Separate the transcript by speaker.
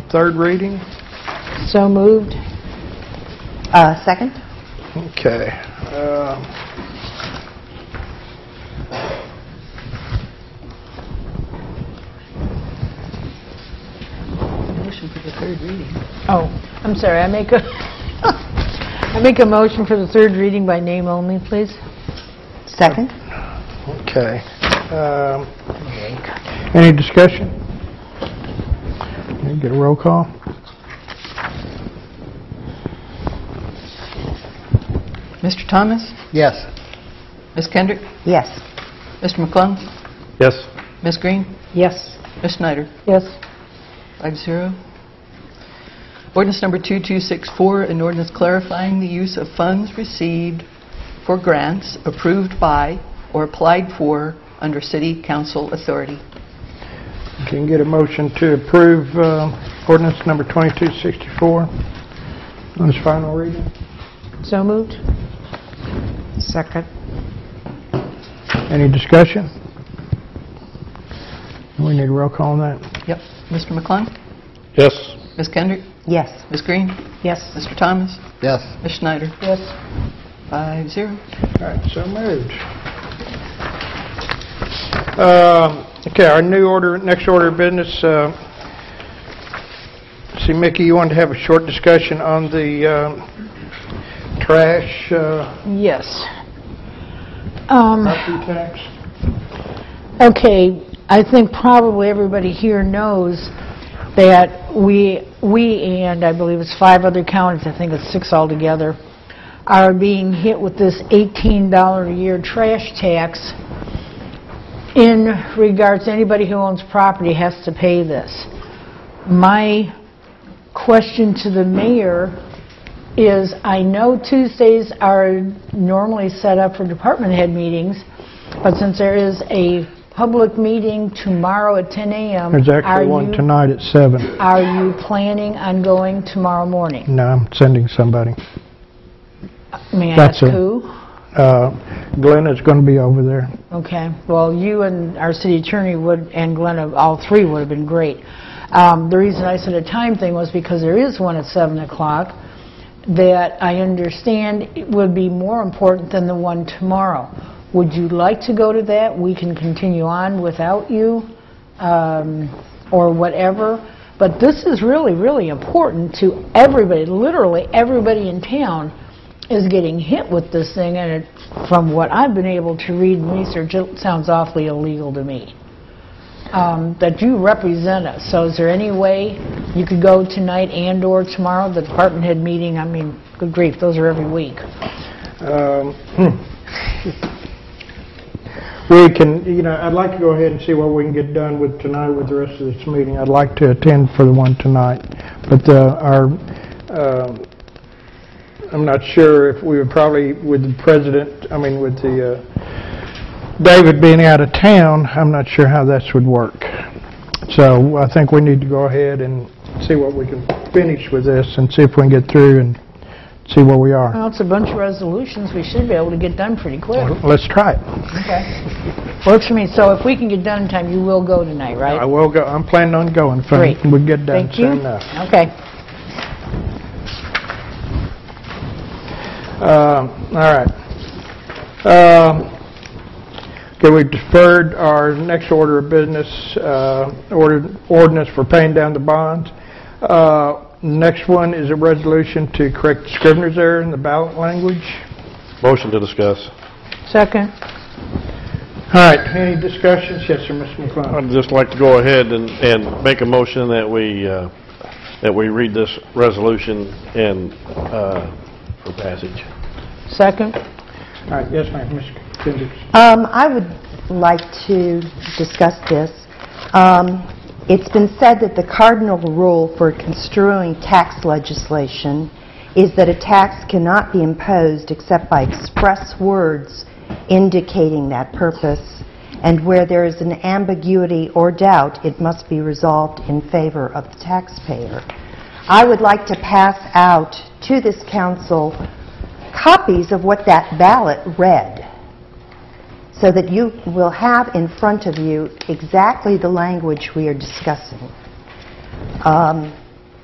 Speaker 1: third reading?
Speaker 2: So moved. Uh, Second?
Speaker 1: Okay. um,
Speaker 3: Motion for the third reading.
Speaker 2: Oh, I'm sorry, I make a, I make a motion for the third reading by name only, please. Second?
Speaker 1: Okay. um, Any discussion? Can we Get a roll call?
Speaker 3: Mr. Thomas?
Speaker 1: Yes.
Speaker 3: Ms. Kendrick?
Speaker 2: Yes.
Speaker 3: Mr. McClung?
Speaker 1: Yes.
Speaker 3: Ms. Green?
Speaker 2: Yes.
Speaker 3: Ms. Snyder?
Speaker 2: Yes.
Speaker 3: Five zero. Ordinance number 2264, an ordinance clarifying the use of funds received for grants approved by or applied for under city council authority.
Speaker 1: Can you get a motion to approve um, ordinance number 2264 on its final reading?
Speaker 2: So moved. Second?
Speaker 1: Any discussion? We need a roll call on that?
Speaker 3: Yep. Mr. McClung?
Speaker 1: Yes.
Speaker 3: Ms. Kendrick?
Speaker 2: Yes.
Speaker 3: Ms. Green?
Speaker 2: Yes.
Speaker 3: Mr. Thomas?
Speaker 1: Yes.
Speaker 3: Ms. Schneider?
Speaker 2: Yes.
Speaker 3: Five zero.
Speaker 1: All right, so moved. Um, Okay, our new order, next order of business, uh, see, Mickey, you wanted to have a short discussion on the um, trash uh,
Speaker 2: Yes. Um,
Speaker 1: property tax?
Speaker 2: Okay, I think probably everybody here knows that we, we and I believe it's five other counties, I think it's six altogether, are being hit with this $18 a year trash tax in regards, anybody who owns property has to pay this. My question to the mayor is, I know Tuesdays are normally set up for department head meetings, but since there is a public meeting tomorrow at 10 a.m.
Speaker 1: There's
Speaker 2: are
Speaker 1: actually one
Speaker 2: you-
Speaker 1: tonight at seven.
Speaker 2: Are you planning on going tomorrow morning?
Speaker 1: No, I'm sending somebody.
Speaker 2: May I ask
Speaker 1: That's it.
Speaker 2: who?
Speaker 1: Uh, Glenn is going to be over there.
Speaker 2: Okay, well, you and our city attorney would, and Glenna, all three would have been great. Um, The reason I said a time thing was because there is one at 7 o'clock that I understand it would be more important than the one tomorrow. Would you like to go to that? We can continue on without you, um, or whatever, but this is really, really important to everybody, literally everybody in town is getting hit with this thing, and it, from what I've been able to read and research, it sounds awfully illegal to me. Um, That you represent us, so is there any way you could go tonight and/or tomorrow, the department head meeting, I mean, good grief, those are every week.
Speaker 1: Um, We can, you know, I'd like to go ahead and see what we can get done with tonight with the rest of this meeting. I'd like to attend for the one tonight, but uh, our, um, I'm not sure if we would probably, with the president, I mean, with the, uh, David being out of town, I'm not sure how this would work. So I think we need to go ahead and see what we can finish with this and see if we can get through and see where we are.
Speaker 2: Well, it's a bunch of resolutions we should be able to get done pretty quick.
Speaker 1: Let's try it.
Speaker 2: Works for me, so if we can get done in time, you will go tonight,
Speaker 1: I
Speaker 2: right?
Speaker 1: will go, I'm planning on going, if I-
Speaker 2: Great.
Speaker 1: we get done
Speaker 2: Thank you.
Speaker 1: soon enough.
Speaker 2: Okay.
Speaker 1: Um, All right. Um, Okay, we deferred our next order of business, uh, order- ordinance for paying down the bonds. Uh, Next one is a resolution to correct Scrivener's error in the ballot language.
Speaker 4: Motion to discuss.
Speaker 2: Second?
Speaker 1: All right, any discussions? Yes, sir, Mr. McClung.
Speaker 4: I'd just like to go ahead and, and make a motion that we, uh, that we read this resolution and, uh, for passage.
Speaker 2: Second?
Speaker 1: All right, yes, ma'am, Ms. Kendricks.
Speaker 5: Um, I would like to discuss this. Um, It's been said that the cardinal rule for construing tax legislation is that a tax cannot be imposed except by express words indicating that purpose, and where there is an ambiguity or doubt, it must be resolved in favor of the taxpayer. I would like to pass out to this council copies of what that ballot read so that you will have in front of you exactly the language we are discussing. Um,